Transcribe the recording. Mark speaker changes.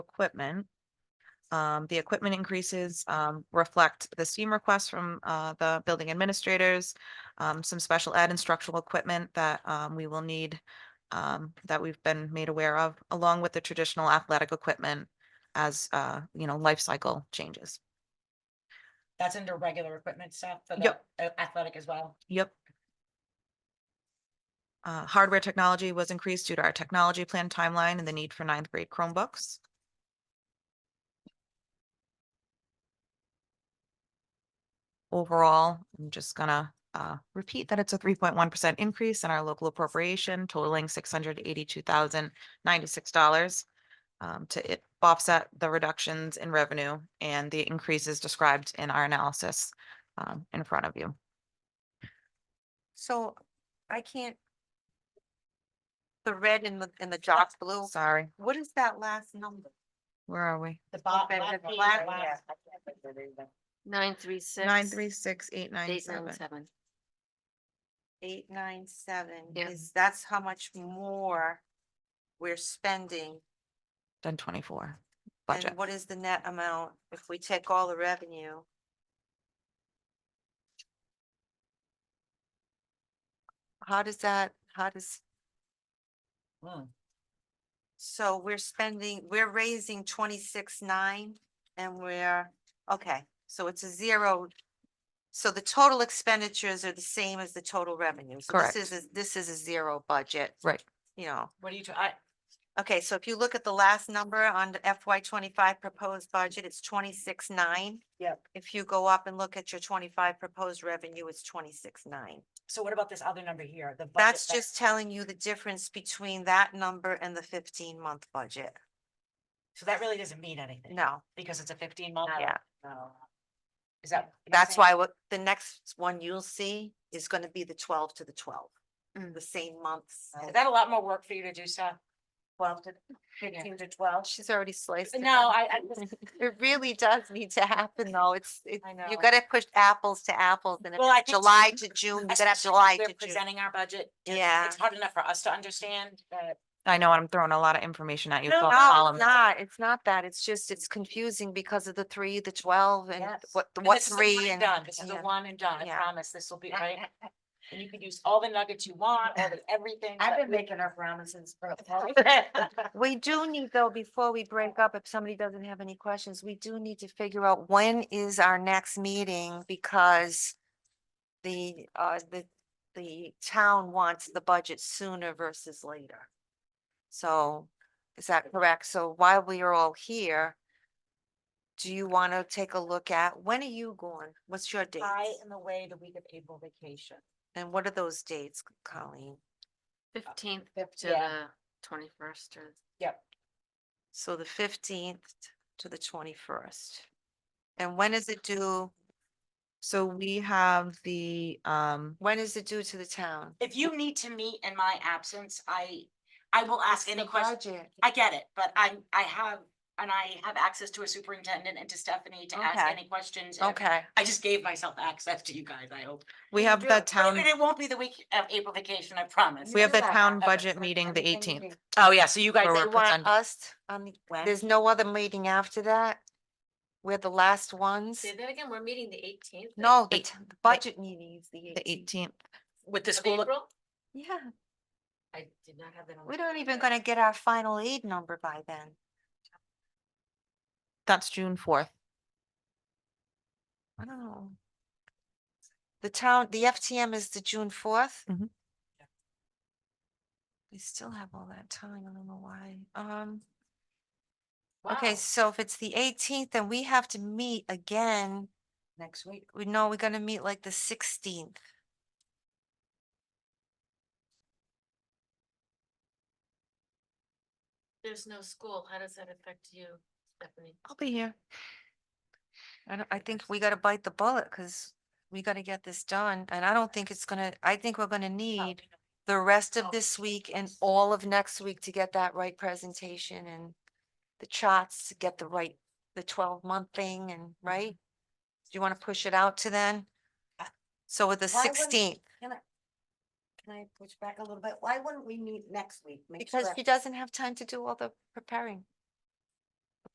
Speaker 1: equipment. Um, the equipment increases, um, reflect the STEAM requests from, uh, the building administrators. Um, some special ed instructional equipment that, um, we will need, um, that we've been made aware of, along with the traditional athletic equipment as, uh, you know, life cycle changes.
Speaker 2: That's under regular equipment stuff for the
Speaker 1: Yep.
Speaker 2: a- athletic as well.
Speaker 1: Yep. Uh, hardware technology was increased due to our technology plan timeline and the need for ninth grade Chromebooks. Overall, I'm just gonna, uh, repeat that it's a three point one percent increase in our local appropriation totaling six hundred eighty-two thousand ninety-six dollars um, to it- offset the reductions in revenue and the increases described in our analysis, um, in front of you.
Speaker 3: So I can't. The red and the, and the dark blue,
Speaker 1: Sorry.
Speaker 3: what is that last number?
Speaker 1: Where are we?
Speaker 2: The bo-
Speaker 3: Okay,
Speaker 2: last
Speaker 3: the
Speaker 2: page,
Speaker 3: black-
Speaker 2: the last-
Speaker 4: Nine, three, six.
Speaker 1: Nine, three, six, eight, nine,
Speaker 4: Eight, nine,
Speaker 1: seven.
Speaker 4: seven.
Speaker 3: Eight, nine, seven,
Speaker 4: Yeah.
Speaker 3: is, that's how much more we're spending.
Speaker 1: Done twenty-four. Budget.
Speaker 3: And what is the net amount if we take all the revenue? How does that, how does,
Speaker 2: Mm,
Speaker 3: so we're spending, we're raising twenty-six nine and we're, okay, so it's a zero. So the total expenditures are the same as the total revenue. So
Speaker 1: Correct.
Speaker 3: This is, a- this is a zero budget.
Speaker 1: Right.
Speaker 3: You know.
Speaker 2: What do you, t- I,
Speaker 3: Okay, so if you look at the last number on the FY twenty-five proposed budget, it's twenty-six nine.
Speaker 2: Yep.
Speaker 3: If you go up and look at your twenty-five proposed revenue, it's twenty-six nine.
Speaker 2: so what about this other number here? The budget
Speaker 3: That's
Speaker 2: that-
Speaker 3: just telling you the difference between that number and the fifteen-month budget.
Speaker 2: So that really doesn't mean anything.
Speaker 3: No,
Speaker 2: Because it's a fifteen month.
Speaker 3: yeah,
Speaker 2: No. Is that? what you're
Speaker 3: that's
Speaker 2: saying?
Speaker 3: why what, the next one you'll see is gonna be the twelve to the twelve.
Speaker 4: Mm.
Speaker 3: The same months.
Speaker 2: Uh,
Speaker 3: as
Speaker 2: Is that a lot more work for you to do, Seth? Twelve to fifteen to twelve?
Speaker 3: She's already sliced. it
Speaker 2: No,
Speaker 3: up.
Speaker 2: I, I just,
Speaker 3: It really does need to happen, though. It's, it,
Speaker 2: I
Speaker 3: you
Speaker 2: know.
Speaker 3: gotta push apples to apples and if
Speaker 2: Well, I
Speaker 3: it's
Speaker 2: think
Speaker 3: July to June, you gotta have
Speaker 2: especially when
Speaker 3: July
Speaker 2: we're
Speaker 3: to June.
Speaker 2: Presenting our budget. it's-
Speaker 3: Yeah.
Speaker 2: It's hard enough for us to understand that.
Speaker 1: I know I'm throwing a lot of information at you. with all the
Speaker 3: No, it's
Speaker 1: columns.
Speaker 3: not. It's not that. It's just, it's confusing because of the three, the twelve and
Speaker 2: Yes.
Speaker 3: what,
Speaker 2: And
Speaker 3: what
Speaker 2: this is a one
Speaker 3: three
Speaker 2: and
Speaker 3: and.
Speaker 2: Done, this is a
Speaker 3: yeah.
Speaker 2: one and done, I
Speaker 3: Yeah.
Speaker 2: promise, this will be, right? And you can use all the nuggets you want, all the everything. but-
Speaker 5: making our promises for.
Speaker 3: We do need though, before we break up, if somebody doesn't have any questions, we do need to figure out when is our next meeting because the, uh, the, the town wants the budget sooner versus later. So is that correct? So while we are all here, do you want to take a look at, when are you going? What's your date?
Speaker 2: I am away the week of April vacation.
Speaker 3: And what are those dates, Colleen?
Speaker 4: Fifteenth
Speaker 2: fif-
Speaker 4: to
Speaker 2: yeah.
Speaker 4: the twenty-first or
Speaker 3: So the fifteenth to the twenty-first. And when is it due?
Speaker 1: So we have the, um,
Speaker 3: When is it due to the town?
Speaker 2: If you need to meet in my absence, I, I will ask
Speaker 3: It's
Speaker 2: any
Speaker 3: the
Speaker 2: question.
Speaker 3: budget.
Speaker 2: I get it, but I'm, I have, and I have access to a superintendent and to Stephanie to ask
Speaker 3: Okay.
Speaker 2: any questions. if-
Speaker 3: Okay,
Speaker 2: I just gave myself access to you guys, I hope.
Speaker 1: we have the
Speaker 2: But
Speaker 1: town,
Speaker 2: It won't be the week of April vacation, I promise.
Speaker 1: we have the
Speaker 2: Okay.
Speaker 1: town budget meeting the eighteenth.
Speaker 2: Oh, yeah, so you guys.
Speaker 1: Or
Speaker 3: you want
Speaker 1: represent-
Speaker 3: us, um,
Speaker 2: When?
Speaker 3: there's no other meeting after that? We're the last ones?
Speaker 4: Say that again, we're meeting the eighteenth.
Speaker 3: No, the
Speaker 1: eight-
Speaker 3: t- the budget meeting is the
Speaker 1: The
Speaker 3: eighteenth.
Speaker 1: eighteenth.
Speaker 2: With the school.
Speaker 3: Yeah,
Speaker 4: I did not have that on.
Speaker 3: we
Speaker 4: my
Speaker 3: don't even
Speaker 4: calendar.
Speaker 3: gonna get our final aid number by then.
Speaker 1: That's June fourth.
Speaker 3: I don't know. The town, the FTM is the June fourth?
Speaker 1: Mhm.
Speaker 3: We still have all that time, I don't know why, um.
Speaker 2: Wow.
Speaker 3: Okay, so if it's the eighteenth, then we have to meet again.
Speaker 2: Next week.
Speaker 3: We know we're gonna meet like the sixteenth.
Speaker 4: There's no school. How does that affect you, Stephanie?
Speaker 1: I'll be here.
Speaker 3: I don't, I think we gotta bite the bullet because we gotta get this done. And I don't think it's gonna, I think we're gonna need the rest of this week and all of next week to get that right presentation and the charts to get the right, the twelve month thing and, right? Do you wanna push it out to then?
Speaker 5: Uh,
Speaker 3: So with the
Speaker 5: why wouldn't-
Speaker 3: sixteenth,
Speaker 5: Can I push back a little bit? Why wouldn't we meet next week? Make
Speaker 3: because
Speaker 5: sure-
Speaker 3: she doesn't have time to do all the preparing.